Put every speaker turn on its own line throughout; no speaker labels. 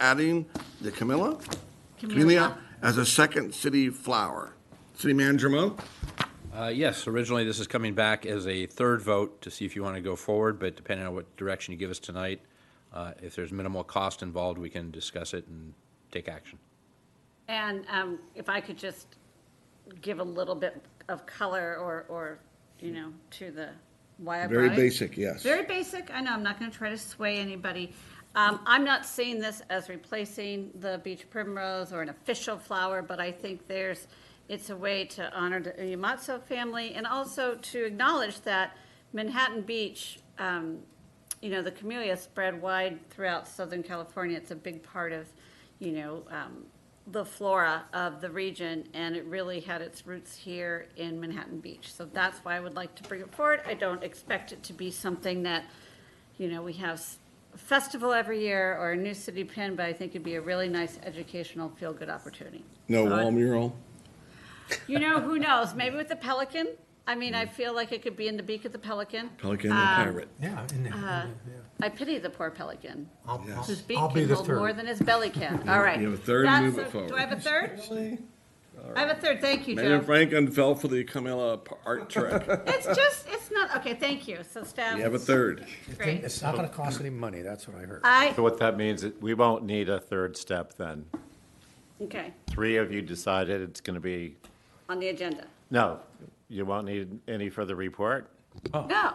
adding the Camilla,
Camellia.
Camellia as a second city flower. City Manager Mo?
Uh, Yes, originally, this is coming back as a third vote to see if you want to go forward, but depending on what direction you give us tonight, uh, if there's minimal cost involved, we can discuss it and take action.
And um, if I could just give a little bit of color or, or, you know, to the, why I brought
Very
it.
basic, yes.
Very basic, I know, I'm not going to try to sway anybody. Um, I'm not seeing this as replacing the beach primrose or an official flower, but I think there's, it's a way to honor the Umatso family and also to acknowledge that Manhattan Beach, um, you know, the camellia spread wide throughout Southern California. It's a big part of, you know, um, the flora of the region, and it really had its roots here in Manhattan Beach. So that's why I would like to bring it forward. I don't expect it to be something that, you know, we have s- a festival every year or a new city pin, but I think it'd be a really nice educational, feel-good opportunity.
No
So I-
wall mural?
You know, who knows? Maybe with the Pelican. I mean, I feel like it could be in the beak of the Pelican. Um,
Pelican and
Uh,
pirate.
Yeah, in there, in there, yeah.
I pity the poor Pelican.
I'll- I'll-
His beak
I'll be
can
the
hold
third.
more than his belly can. All right.
You have a third,
That's
move
a-
it forward.
Do I have a third? I have a third. Thank you,
Mayor
Joe.
Franklin fell for the Camilla p- art trick.
It's just, it's not, okay, thank you. So staff.
You have a third.
Great.
It's not gonna cost any money, that's what I heard.
I,
So what that means, is we won't need a third step then.
okay,
Three of you decided it's going to be,
on the agenda.
no, you won't need any further report?
No, no,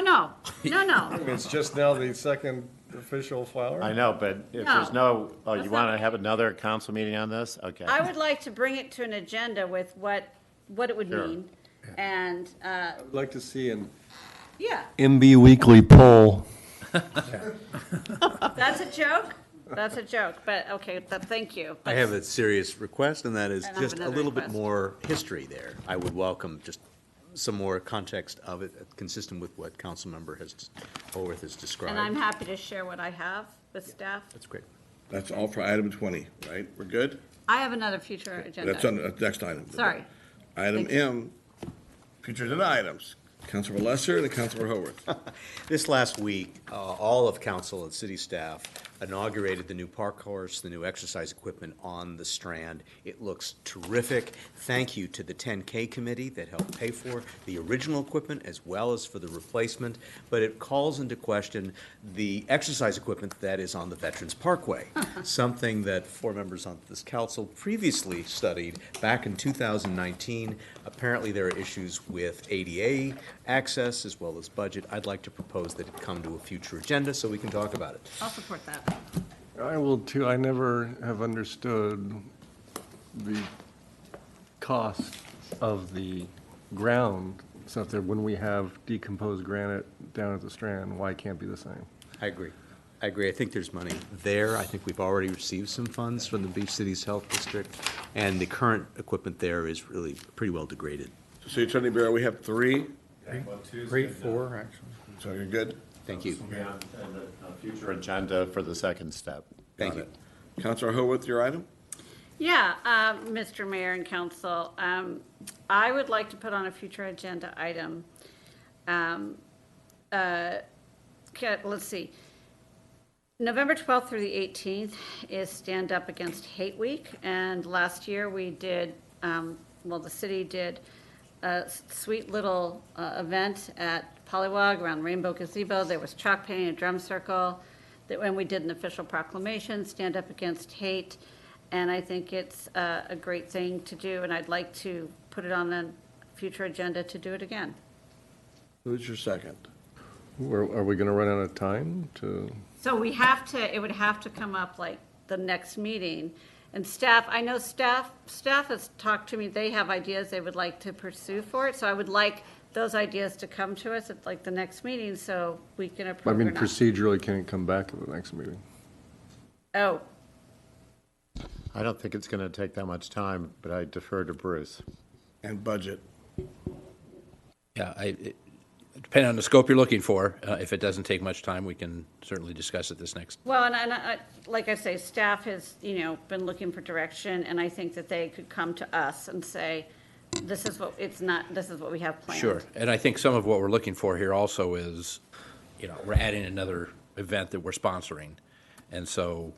no, no, no.
It's just now the second official flower?
I know, but if
No.
there's no, oh, you
That's
want
not-
to have another council meeting on this? Okay.
I would like to bring it to an agenda with what, what it would
Sure.
mean. And, uh,
I'd like to see an
yeah,
MB Weekly poll.
that's a joke. That's a joke, but okay, but thank you.
I have a serious request, and that is
And I have
just a
another
little bit
request.
more history there. I would welcome just some more context of it, consistent with what Councilmember has, Holworth has described.
And I'm happy to share what I have with staff.
That's great.
That's all for item 20, right? We're good?
I have another future agenda.
That's on the next item.
Sorry.
Item
Thank you.
M, future agenda items. Councilor Lesser and Councilor Haworth.
This last week, uh, all of council and city staff inaugurated the new park course, the new exercise equipment on the Strand. It looks terrific. Thank you to the 10K committee that helped pay for the original equipment as well as for the replacement, but it calls into question the exercise equipment that is on the Veterans Parkway, something that four members on this council previously studied back in 2019. Apparently, there are issues with ADA access as well as budget. I'd like to propose that it come to a future agenda so we can talk about it.
I'll support that.
I will too. I never have understood the cost of the ground So up there. When we have decomposed granite down at the Strand, why it can't be the same?
I agree. I agree. I think there's money there. I think we've already received some funds from the Beach Cities Health District, and the current equipment there is really pretty well degraded.
City Attorney Barrow, we have three,
Three, four, actually.
so you're good.
Thank you.
Yeah, and a- a Future agenda for the second step.
Thank you.
Councilor Haworth, your item?
Yeah, um, Mr. Mayor and Council, um, I would like to put on a future agenda item. um, uh, ca- Let's see. November 12th through the 18th is Stand Up Against Hate Week, and last year we did, um, well, the city did a s- sweet little uh, event at Polywog around Rainbow Gazebo. There was chalk painting, a drum circle, that- and we did an official proclamation, Stand Up Against Hate, and I think it's uh, a great thing to do, and I'd like to put it on a future agenda to do it again.
Who's your second?
Are are we going to run out of time to?
So we have to, it would have to come up like the next meeting. And staff, I know staff, staff has talked to me, they have ideas they would like to pursue for it. So I would like those ideas to come to us at like the next meeting so we can
I
approve or
mean,
not.
procedurally, can it come back at the next meeting?
Oh,
I don't think it's going to take that much time, but I defer to Bruce.
And budget.
Yeah, I, it- depending on the scope you're looking for, uh, if it doesn't take much time, we can certainly discuss it this next.
well, and, and I, like I say, staff has, you know, been looking for direction and I think that they could come to us and say, this is what, it's not, this is what we have planned.
Sure, and I think some of what we're looking for here also is, you know, we're adding another event that we're sponsoring. And so